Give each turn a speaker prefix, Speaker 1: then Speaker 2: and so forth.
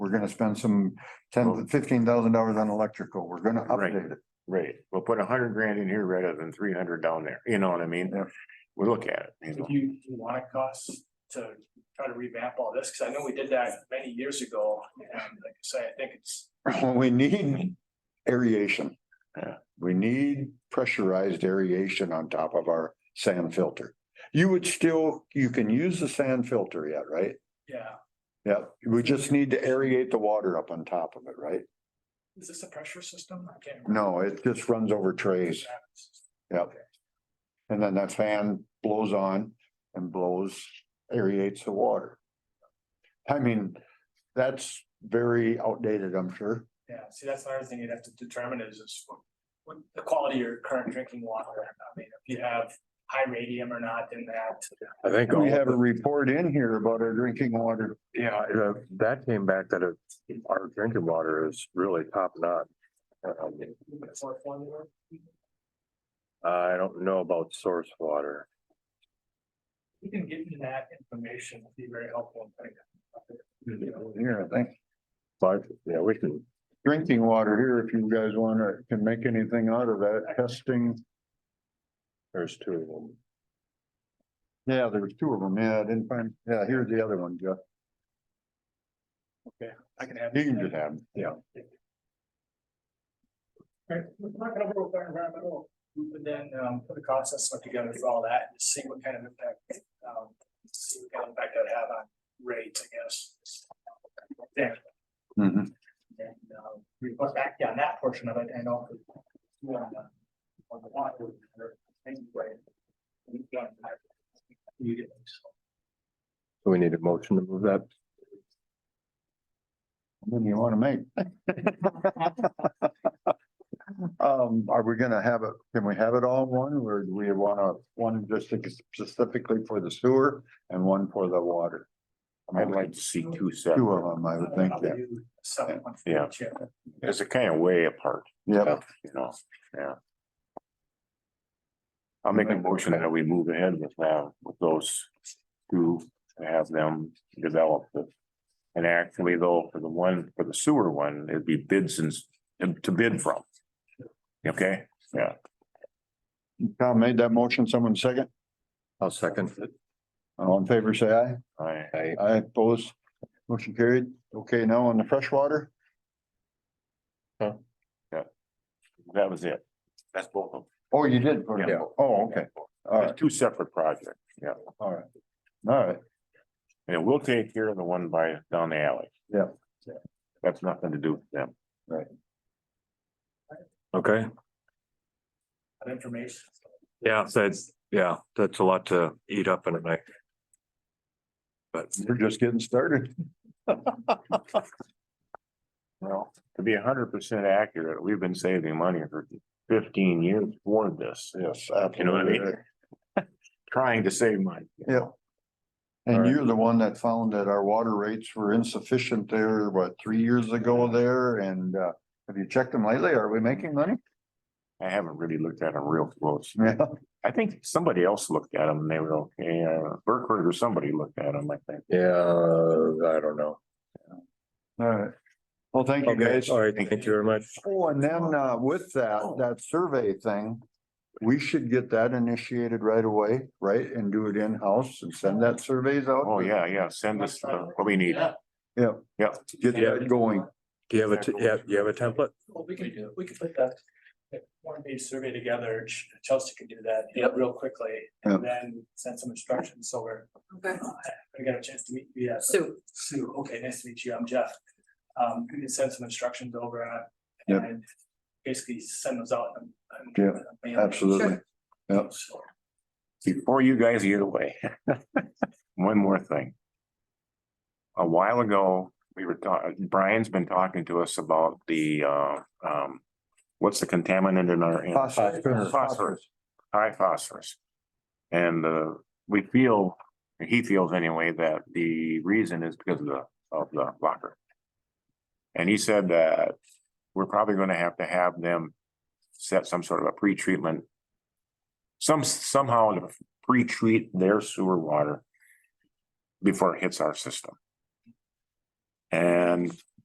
Speaker 1: We're gonna spend some ten, fifteen thousand dollars on electrical. We're gonna
Speaker 2: Right.
Speaker 1: update it.
Speaker 2: Right, we'll put a hundred grand in here rather than three hundred down there, you know what I mean?
Speaker 1: Yeah.
Speaker 2: We look at it, you
Speaker 3: If
Speaker 2: know,
Speaker 3: you, do you want it costs to try to revamp all this, because I know we did that many years ago, and like I say, I think it's.
Speaker 1: We need aeration.
Speaker 2: Yeah.
Speaker 1: We need pressurized aeration on top of our sand filter. You would still, you can use the sand filter yet, right?
Speaker 3: Yeah,
Speaker 1: Yeah, we just need to aerate the water up on top of it, right?
Speaker 3: is this a pressure system? I can't.
Speaker 1: No,
Speaker 3: remember.
Speaker 1: it just runs over trays and then that fan blows on and blows, aerates the water. I mean, that's very outdated, I'm sure.
Speaker 3: Yeah, see, that's another thing you'd have to determine is, is what, what the quality of your current drinking water, I mean, if you have high radium or not in that.
Speaker 2: I think.
Speaker 1: We
Speaker 2: all-
Speaker 1: have a report in here about our drinking water.
Speaker 2: Yeah, uh, that came back that it- our drinking water is really top notch. Um,
Speaker 3: sort of formula.
Speaker 2: I don't know about source water.
Speaker 3: We can give you that information, it'd be very helpful. I think.
Speaker 1: Here, I think.
Speaker 2: But, yeah, we can,
Speaker 1: drinking water here, if you guys wanna, can make anything out of that testing.
Speaker 2: there's two of them.
Speaker 1: Yeah, there was two of them. Yeah, I didn't find, yeah, here's the other one, Jeff.
Speaker 3: I can have.
Speaker 1: You can just have, them. yeah.
Speaker 3: Right, we're not gonna work with our environmental, but then um put a cost estimate together for all that and see what kind of impact, um, see what kind of impact that'd have on rates, I guess. There,
Speaker 1: Mhm.
Speaker 3: and um, report back on that portion of it and also. On the on the water, or anyway. We've done that. You get it, so.
Speaker 2: So we need a motion to move that.
Speaker 1: What do you wanna make? Um, are we gonna have it, can we have it all in one, or do we wanna, one just specifically for the sewer and one for the water?
Speaker 2: I'd like to see two
Speaker 1: Two of
Speaker 2: separate,
Speaker 1: them, I would think,
Speaker 3: Probably
Speaker 1: yeah.
Speaker 3: do Seven one for
Speaker 2: Yeah.
Speaker 3: each, yeah.
Speaker 2: it's a kind of way apart,
Speaker 1: Yep.
Speaker 2: you know, yeah. I'll make a motion that we move ahead with that, with those two, and have them develop it. And actually though, for the one, for the sewer one, it'd be bids and, s- and to bid from. Okay,
Speaker 1: Tom made that motion, someone second?
Speaker 4: I'll second.
Speaker 1: All in favor, say aye.
Speaker 2: I,
Speaker 4: I,
Speaker 1: I oppose. Motion carried. Okay, now on the freshwater,
Speaker 2: that was it. That's both of
Speaker 1: oh, you did. put it-
Speaker 2: Yeah.
Speaker 1: Oh, okay. All
Speaker 2: them.
Speaker 1: right,
Speaker 2: It's two separate projects, yeah.
Speaker 1: all right. All right,
Speaker 2: And we'll take care of the one by down the alley.
Speaker 1: Yeah.
Speaker 2: That's nothing to do with them.
Speaker 4: okay,
Speaker 3: Of information.
Speaker 4: yeah, that's, yeah, that's a lot to eat up in a night. But
Speaker 1: we're just getting started.
Speaker 2: Well, to be hundred percent accurate, we've been saving money for fifteen years for this,
Speaker 1: Yes.
Speaker 2: You know what I mean?
Speaker 1: absolutely.
Speaker 2: trying to save money.
Speaker 1: Yeah. And you're the one that found that our water rates were insufficient there, what, three years ago there? And uh, have you checked them lately? Are we making money?
Speaker 2: I haven't really looked at them real close.
Speaker 1: Yeah.
Speaker 2: I think somebody else looked at them and they were okay. Uh, Burkhardt or somebody looked at them, I think.
Speaker 4: yeah, I don't know.
Speaker 1: All right. Well, thank you
Speaker 4: Okay,
Speaker 1: guys.
Speaker 4: all right, thank you very much.
Speaker 1: Oh, and then uh, with that,
Speaker 2: Oh.
Speaker 1: that survey thing, we should get that initiated right away, right? And do it in-house and send that surveys out.
Speaker 2: Oh, yeah, yeah, send us uh, what we need.
Speaker 3: Yeah.
Speaker 1: Yeah,
Speaker 2: Yeah.
Speaker 1: get that going.
Speaker 4: Do you have a, t- yeah, you have a template?
Speaker 3: Well, we can, we can put that, that one page survey together, Ch- Chelsea can do that you know, real quickly, and then send some instructions, so we're.
Speaker 5: Okay,
Speaker 3: I got a chance to meet you, yeah.
Speaker 5: Sue,
Speaker 3: Sue, okay, nice to meet you, I'm Jeff. Um, you can send some instructions over, uh,
Speaker 1: Yep.
Speaker 3: and basically send those out. and- and-
Speaker 1: Yeah,
Speaker 3: and-
Speaker 1: Absolutely. Yep.
Speaker 3: So,
Speaker 2: Before you guys get away, one more thing. A while ago, we were talking, Brian's been talking to us about the uh, um, what's the contaminant in our? in- Phosphorus. high phosphorus. And uh, we feel, he feels anyway, that the reason is because of the, of the locker. And he said that we're probably gonna have to have them set some sort of a pretreatment. Some, somehow to pre-treat their sewer water before it hits our system. And